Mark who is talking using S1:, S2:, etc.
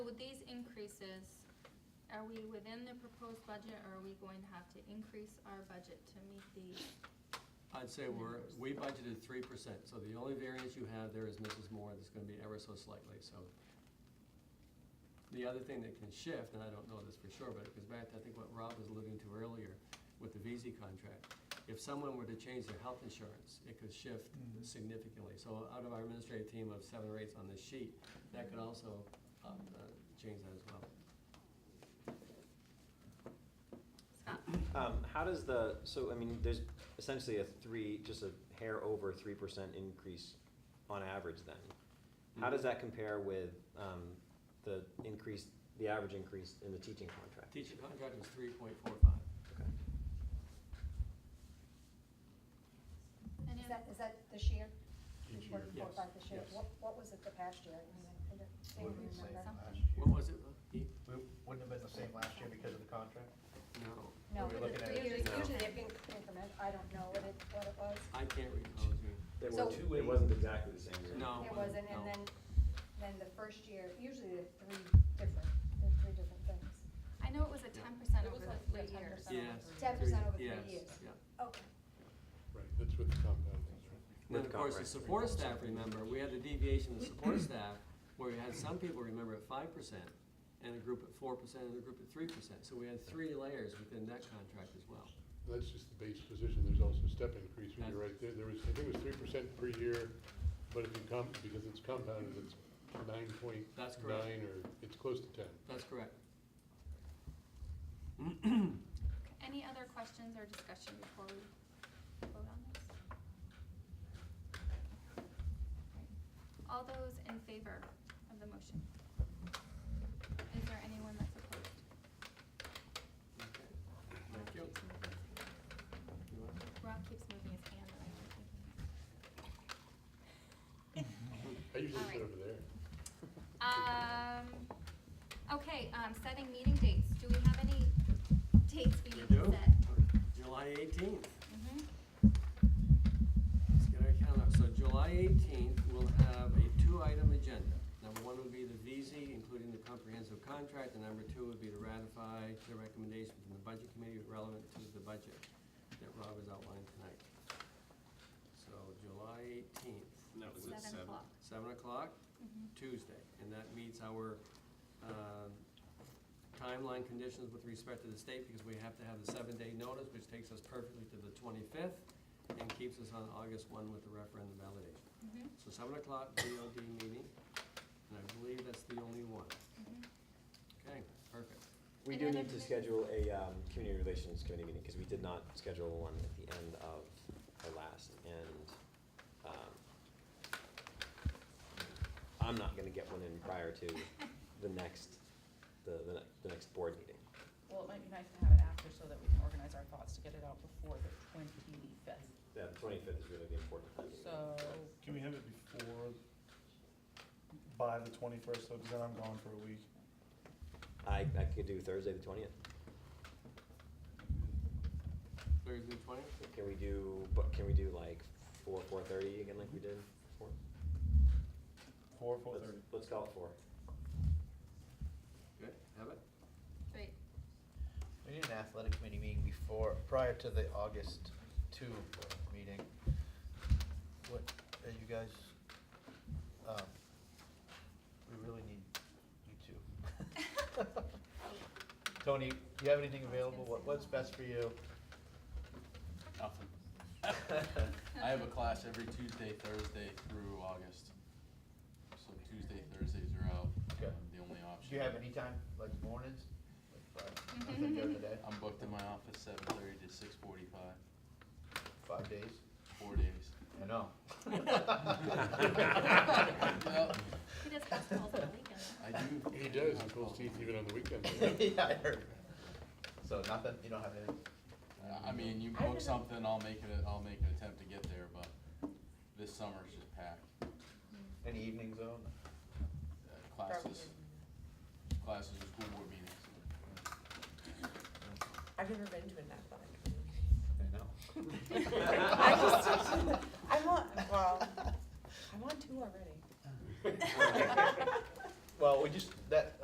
S1: increases, are we within the proposed budget or are we going to have to increase our budget to meet the,
S2: I'd say we're, we budgeted three percent, so the only variance you have there is Mrs. Moore, that's gonna be ever so slightly, so. The other thing that can shift, and I don't know this for sure, but it goes back to, I think, what Rob was alluding to earlier with the VZ contract. If someone were to change their health insurance, it could shift significantly. So out of our administrative team of seven or eight on this sheet, that could also um, uh, change that as well.
S1: Scott?
S3: Um, how does the, so, I mean, there's essentially a three, just a hair over three percent increase on average then. How does that compare with, um, the increase, the average increase in the teaching contract?
S2: Teacher contract was three point four five.
S3: Okay.
S1: And
S4: Is
S1: if-
S4: that, is that this year?
S5: Each
S4: Four-
S5: year.
S2: Yes,
S4: four, five this year?
S2: yes.
S4: What, what was it the past year? I mean, I don't- I
S5: Wouldn't
S4: don't
S5: have been the
S4: remember.
S5: same last
S1: Something.
S5: year.
S2: What was it, Heath?
S5: We wouldn't have been the same last year because of the contract?
S2: No,
S4: No,
S5: We're looking at-
S4: usually,
S3: No.
S4: usually it being increment, I don't know what it, what it was.
S2: I can't recall.
S3: There
S4: So-
S3: were two, it wasn't exactly the same year.
S2: No.
S4: It wasn't,
S2: no.
S4: and then, then the first year, usually the three different, the three different things.
S1: I know it was a ten
S6: It
S1: percent
S6: was
S1: over the
S6: like
S1: three
S6: 10%
S1: years.
S6: over
S2: Yes.
S4: Ten um, percent over
S2: Three-
S4: three
S2: yes,
S4: years.
S2: yeah.
S4: Okay.
S7: Right, that's with the compound, that's right.
S2: And then, of course, the support staff, remember, we had the deviation of support staff, where we had some people, remember, at five percent, and a group at four percent, and a group at three percent. So we had three layers within that contract as well.
S7: That's just the base position, there's also step increase, when you're right there, there was, I think it was three percent per year, but if you come, because it's compounded, it's nine point
S2: That's correct.
S7: nine, or it's close to ten.
S2: That's correct.
S1: Any other questions or discussion before we vote on this? All those in favor of the motion? Is there anyone that's opposed?
S2: Okay. Thank you. You want-
S1: Rob keeps moving his hand, and I don't think he can.
S7: I usually sit
S1: All right.
S7: over there.
S1: Um, okay, um, setting meeting dates. Do we have any dates we
S2: We
S1: need to
S2: do?
S1: set?
S2: July eighteenth.
S1: Mhm.
S2: Let's get our calendar. So July 18th, we'll have a two-item agenda. Number one would be the VZ, including the comprehensive contract, and number two would be to ratify the recommendation from the Budget Committee relevant to the budget that Rob has outlined tonight. So July 18th,
S8: That was at
S1: Seven o'clock.
S2: 7 o'clock,
S1: Mhm.
S2: Tuesday, and that meets our um, timeline conditions with respect to the state, because we have to have the seven-day notice, which takes us perfectly to the 25th, and keeps us on August 1 with the referendum validation.
S1: Mhm.
S2: So 7 o'clock DOD meeting, and I believe that's the only one.
S1: Mhm.
S2: Okay, perfect.
S3: We
S1: Any
S3: do
S1: other
S3: need to
S1: committees?
S3: schedule a, um, community relations committee meeting, because we did not schedule one at the end of the last, and, um, I'm not gonna get one in prior to the next, the, the, ne- the next board meeting.
S6: Well, it might be nice to have it after so that we can organize our thoughts to get it out before the twenty-fifth.
S3: Yeah, the twenty-fifth is really the important time.
S6: So,
S9: Can we have it before, by the twenty-first, because then I'm gone for a week.
S3: I, I could do Thursday, the twentieth.
S2: Thursday, 20th?
S3: Can we do, but can we do like four, four-thirty again like we did before?
S9: Four,
S3: Let's-
S9: four-thirty.
S3: Let's call it four.
S2: Good, have it?
S1: Great.
S5: We need an athletic committee meeting before, prior to the August two meeting. What, are you guys, um, we really need you two. Tony, do you have anything available? What, what's best for you?
S8: Nothing. I have a class every Tuesday, Thursday through August. So Tuesday, Thursdays are out,
S5: Okay.
S8: um, the only option.
S5: Do you have any time, like mornings? Like five- like the other
S2: Mm-hmm.
S5: day?
S8: I'm booked in my office seven thirty to six forty-five,
S5: Five days?
S8: four days.
S5: I know.
S8: Well,
S1: He does basketballs on the weekend.
S8: I do.
S7: He does, he pulls teeth even on the weekends.
S5: Yeah, I heard. So nothing, you don't have anything?
S8: I I mean, you
S6: I
S8: book
S6: was-
S8: something, I'll make it, I'll make an attempt to get there, but this summer's just packed.
S5: Any evenings on?
S8: Uh, Classes, classes and school board meetings.
S10: I've never been to an athletic meeting.
S5: I know.
S10: I just, I'm on, well, I'm on two already.
S5: Well, we just, that,